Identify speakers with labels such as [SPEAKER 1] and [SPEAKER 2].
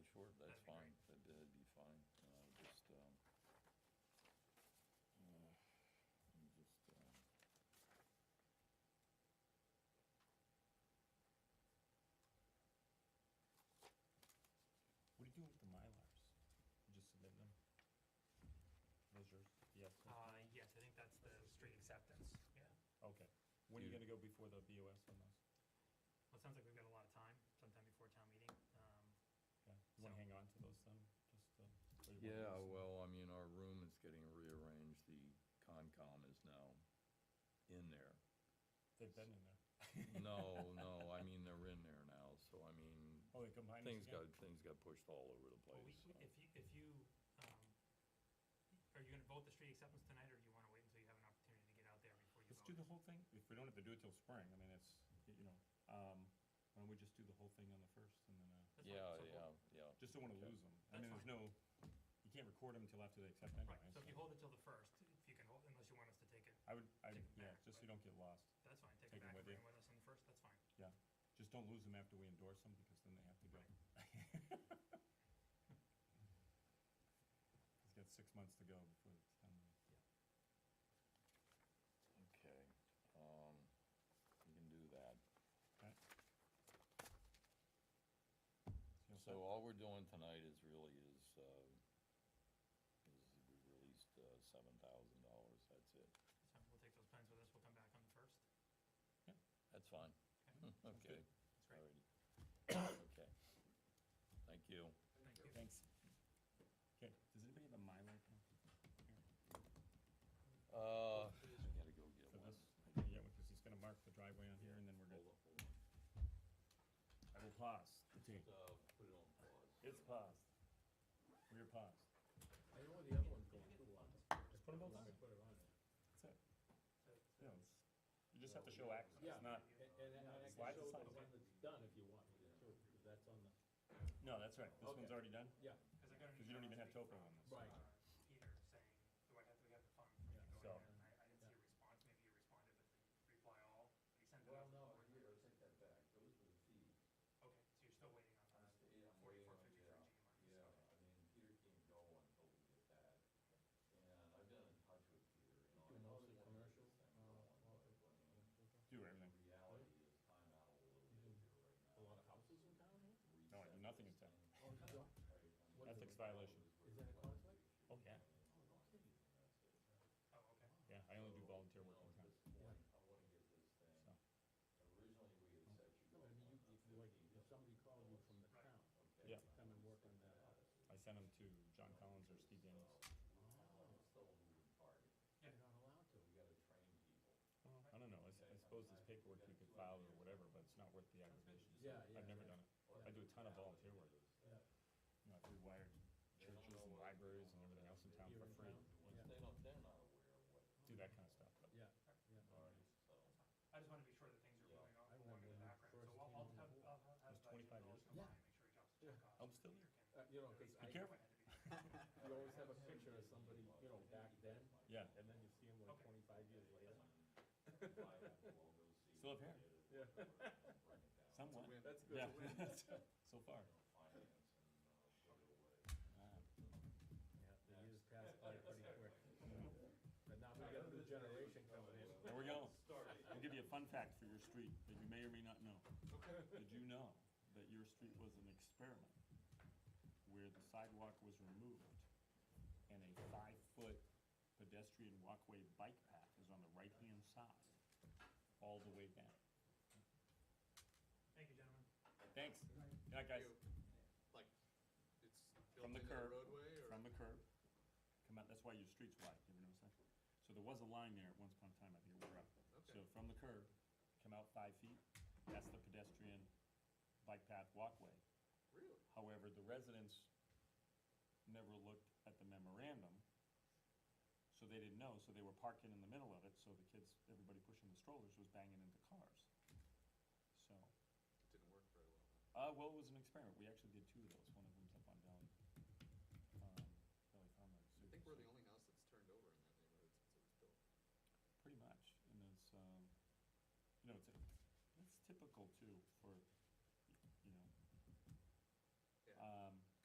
[SPEAKER 1] Uh, um, uh,
[SPEAKER 2] do with the Mylars? You just submit them? Those yours? Yes,
[SPEAKER 3] Uh, yes, I think that's the street acceptance, yeah.
[SPEAKER 2] okay. When are you
[SPEAKER 1] Yeah.
[SPEAKER 2] gonna go before the BOS on those?
[SPEAKER 3] Well, it sounds like we've got a lot of time, sometime before town meeting. Um,
[SPEAKER 2] Okay, you wanna
[SPEAKER 3] So-
[SPEAKER 2] hang on to those then, just, uh? or you wanna
[SPEAKER 1] Yeah,
[SPEAKER 2] just-
[SPEAKER 1] well, I mean, our room is getting rearranged, the Concom is now in there.
[SPEAKER 2] They've been in there.
[SPEAKER 1] No, no, I mean, they're in there now, so I mean,
[SPEAKER 2] Oh, they combined us
[SPEAKER 1] things
[SPEAKER 2] again?
[SPEAKER 1] got, things got pushed all over the
[SPEAKER 3] Well, uh, we,
[SPEAKER 1] place.
[SPEAKER 3] we- if you, if you, um, are you gonna vote the street acceptance tonight, or do you wanna wait until you have an opportunity to get out there before you
[SPEAKER 2] Let's do the
[SPEAKER 3] vote?
[SPEAKER 2] whole thing, if we don't have to do it till spring, I mean, it's, y- you know, um, why don't we just do the whole thing on the first and then, uh,
[SPEAKER 3] That's fine.
[SPEAKER 1] Yeah,
[SPEAKER 3] So
[SPEAKER 1] yeah,
[SPEAKER 3] hold-
[SPEAKER 1] yeah.
[SPEAKER 2] just don't wanna
[SPEAKER 1] Okay.
[SPEAKER 2] lose them. I
[SPEAKER 3] That's
[SPEAKER 2] mean, there's
[SPEAKER 3] fine.
[SPEAKER 2] no, you can't record them until after they accept anyway.
[SPEAKER 3] Right, so if you hold it till the first, if you can hold, unless you want us to take it,
[SPEAKER 2] I would, I,
[SPEAKER 3] Take it
[SPEAKER 2] yeah,
[SPEAKER 3] back,
[SPEAKER 2] just so
[SPEAKER 3] but-
[SPEAKER 2] you don't get lost,
[SPEAKER 3] that's fine, take it
[SPEAKER 2] Take
[SPEAKER 3] back
[SPEAKER 2] 'em
[SPEAKER 3] and bring
[SPEAKER 2] with you.
[SPEAKER 3] it with us on the first, that's fine.
[SPEAKER 2] yeah. Just don't lose them after we endorse them, because then they have to go.
[SPEAKER 3] Right.
[SPEAKER 2] He's got six months to go before it's done.
[SPEAKER 1] Okay, um, you can do that.
[SPEAKER 2] Okay. you'll
[SPEAKER 1] So
[SPEAKER 2] set-
[SPEAKER 1] all we're doing tonight is really is, uh, is we released, uh, seven thousand dollars, that's it.
[SPEAKER 3] So we'll take those plans with us, we'll come back on the first.
[SPEAKER 1] That's fine,
[SPEAKER 3] Okay,
[SPEAKER 1] okay.
[SPEAKER 3] That's great,
[SPEAKER 1] Alrighty. Okay. Thank you.
[SPEAKER 3] thank you.
[SPEAKER 2] Thanks. uh, Okay, does anybody have a Mylar? pen? Here.
[SPEAKER 1] Uh, I gotta go get
[SPEAKER 2] For
[SPEAKER 1] one.
[SPEAKER 2] this? Yeah, because he's gonna mark the driveway on here, and then we're
[SPEAKER 1] Hold
[SPEAKER 2] good.
[SPEAKER 1] up, hold on.
[SPEAKER 2] I will pause. the tape.
[SPEAKER 1] Uh, put it on pause.
[SPEAKER 2] It's paused. We're paused.
[SPEAKER 4] I know the other one's going too long.
[SPEAKER 2] Just put them both
[SPEAKER 4] I'm
[SPEAKER 2] on.
[SPEAKER 4] gonna put it on
[SPEAKER 2] That's it.
[SPEAKER 4] there.
[SPEAKER 2] You know, it's- you just have to show action.
[SPEAKER 4] Yeah,
[SPEAKER 2] It's not,
[SPEAKER 4] and, and and I can
[SPEAKER 2] Slide
[SPEAKER 4] show
[SPEAKER 2] the
[SPEAKER 4] the
[SPEAKER 2] slides.
[SPEAKER 4] one that's done if you want me to, too, if that's on the,
[SPEAKER 2] no, that's right. This one's
[SPEAKER 4] Okay.
[SPEAKER 2] already done?
[SPEAKER 4] yeah,
[SPEAKER 3] Because I got an
[SPEAKER 2] 'Cause you don't
[SPEAKER 3] email
[SPEAKER 2] even have
[SPEAKER 3] last week
[SPEAKER 2] topo
[SPEAKER 3] from,
[SPEAKER 2] on this.
[SPEAKER 4] Right.
[SPEAKER 3] uh, Peter saying, do I have, do we have the funds for me
[SPEAKER 4] Yeah.
[SPEAKER 3] to go
[SPEAKER 2] So-
[SPEAKER 3] ahead? And I, I didn't see a response, maybe you responded with the reply all, you sent it out. to
[SPEAKER 5] Well,
[SPEAKER 3] the
[SPEAKER 5] no,
[SPEAKER 3] board members.
[SPEAKER 5] here, I take that
[SPEAKER 3] Okay, so
[SPEAKER 5] back, those were the fees.
[SPEAKER 3] you're still waiting on
[SPEAKER 5] I'm
[SPEAKER 3] those
[SPEAKER 5] sta- I'm waiting
[SPEAKER 3] forty-four
[SPEAKER 5] on-
[SPEAKER 3] fifty for
[SPEAKER 5] yeah,
[SPEAKER 3] GMIs, okay.
[SPEAKER 5] Yeah, I mean, Peter can't go until we get that, and I've been in touch with Peter, you know.
[SPEAKER 2] Do
[SPEAKER 4] You know, the commercial, uh, well,
[SPEAKER 5] I also wanna get this thing going, but, I mean, The
[SPEAKER 2] everything.
[SPEAKER 5] reality is time out a little bit here right now.
[SPEAKER 4] a lot of houses in town here?
[SPEAKER 2] No, I do nothing in town.
[SPEAKER 4] Oh,
[SPEAKER 5] town.
[SPEAKER 2] Ethics violation.
[SPEAKER 4] Is that a conflict?
[SPEAKER 2] Oh, yeah.
[SPEAKER 3] Oh, okay.
[SPEAKER 2] Yeah, I only do volunteer work
[SPEAKER 5] So,
[SPEAKER 2] all the
[SPEAKER 5] you know,
[SPEAKER 2] time,
[SPEAKER 5] at this point, I wanna get this
[SPEAKER 2] so.
[SPEAKER 5] thing, originally we had set you.
[SPEAKER 4] No, I mean, you, if, like, if somebody called you from the
[SPEAKER 3] Right.
[SPEAKER 4] town,
[SPEAKER 5] Okay.
[SPEAKER 2] Yeah.
[SPEAKER 4] come and work on that house.
[SPEAKER 2] I send them to John Collins or Steve Daniels.
[SPEAKER 5] It's Still a moving target.
[SPEAKER 4] You're
[SPEAKER 3] Yeah,
[SPEAKER 4] not
[SPEAKER 2] Well,
[SPEAKER 4] allowed to.
[SPEAKER 5] So we gotta train people.
[SPEAKER 2] I don't know, I s- I suppose this paperwork we could file or whatever, but it's not worth the aggravation.
[SPEAKER 4] Yeah, yeah.
[SPEAKER 2] I've never done it. I do a ton of volunteer work.
[SPEAKER 4] Yeah.
[SPEAKER 2] You know, I've rewired churches and libraries and everything else in town
[SPEAKER 4] Here
[SPEAKER 2] for
[SPEAKER 4] in
[SPEAKER 2] free,
[SPEAKER 4] town?
[SPEAKER 5] Once they don't, they're not aware of what.
[SPEAKER 2] do that kind of stuff, but.
[SPEAKER 4] Yeah, yeah.
[SPEAKER 5] Alright, so.
[SPEAKER 3] that's fine. I just wanna be sure that things are
[SPEAKER 5] Yeah.
[SPEAKER 3] moving
[SPEAKER 4] I
[SPEAKER 3] on along in
[SPEAKER 4] remember
[SPEAKER 3] the
[SPEAKER 4] when you
[SPEAKER 3] background, so
[SPEAKER 4] first
[SPEAKER 3] I'll,
[SPEAKER 4] came
[SPEAKER 3] I'll
[SPEAKER 4] on
[SPEAKER 3] have,
[SPEAKER 4] board.
[SPEAKER 3] I'll have. uh,
[SPEAKER 2] was
[SPEAKER 3] Jim
[SPEAKER 2] 25 years
[SPEAKER 3] Dawes come by
[SPEAKER 4] ago.
[SPEAKER 3] and Make sure he drops the
[SPEAKER 4] Yeah.
[SPEAKER 3] check off. so Peter can-
[SPEAKER 2] I'm still
[SPEAKER 4] Uh, you know,
[SPEAKER 3] at
[SPEAKER 4] 'cause
[SPEAKER 3] least
[SPEAKER 4] I-
[SPEAKER 3] know
[SPEAKER 2] careful.
[SPEAKER 3] ahead to be-
[SPEAKER 4] You always have a picture of somebody, you know, back then,
[SPEAKER 2] Yeah,
[SPEAKER 4] and then you see them like
[SPEAKER 3] Okay.
[SPEAKER 4] twenty-five years later.
[SPEAKER 2] Still up here.
[SPEAKER 4] Yeah.
[SPEAKER 2] somewhat,
[SPEAKER 4] That's
[SPEAKER 2] yeah, so far.
[SPEAKER 5] uh,
[SPEAKER 4] Yeah, the years pass by pretty quick. But now we got a new generation coming in.
[SPEAKER 2] There we go. I'll give you a fun fact for your street that you may or may not know. Did you know that your street was an experiment where the sidewalk was removed and a five-foot pedestrian walkway bike path is on the right-hand side all the way down?
[SPEAKER 3] Thank you, gentlemen.
[SPEAKER 2] Thanks. Yeah, guys,
[SPEAKER 6] You- Like, it's built
[SPEAKER 2] from the
[SPEAKER 6] into the
[SPEAKER 2] curb.
[SPEAKER 6] roadway or?
[SPEAKER 2] From the curb. Come out, that's why your street's wide, you ever notice that? So there was a line there at once upon a time, I think it wore up. So
[SPEAKER 6] Okay.
[SPEAKER 2] from the curb, come out five feet, that's the pedestrian bike path walkway.
[SPEAKER 6] Really?
[SPEAKER 2] However, the residents never looked at the memorandum, so they didn't know, so they were parking in the middle of it, so the kids, everybody pushing the strollers was banging into cars. So,
[SPEAKER 6] It didn't work very well.
[SPEAKER 2] uh, well, it was an experiment, we actually did two of those, one of them's up on Valley, um, Valley Farm Road. so
[SPEAKER 6] I think we're the
[SPEAKER 2] it's
[SPEAKER 6] only house that's turned over in that neighborhood since it was built.
[SPEAKER 2] Pretty much, and it's, um, you Um, know, it's, it's typical too for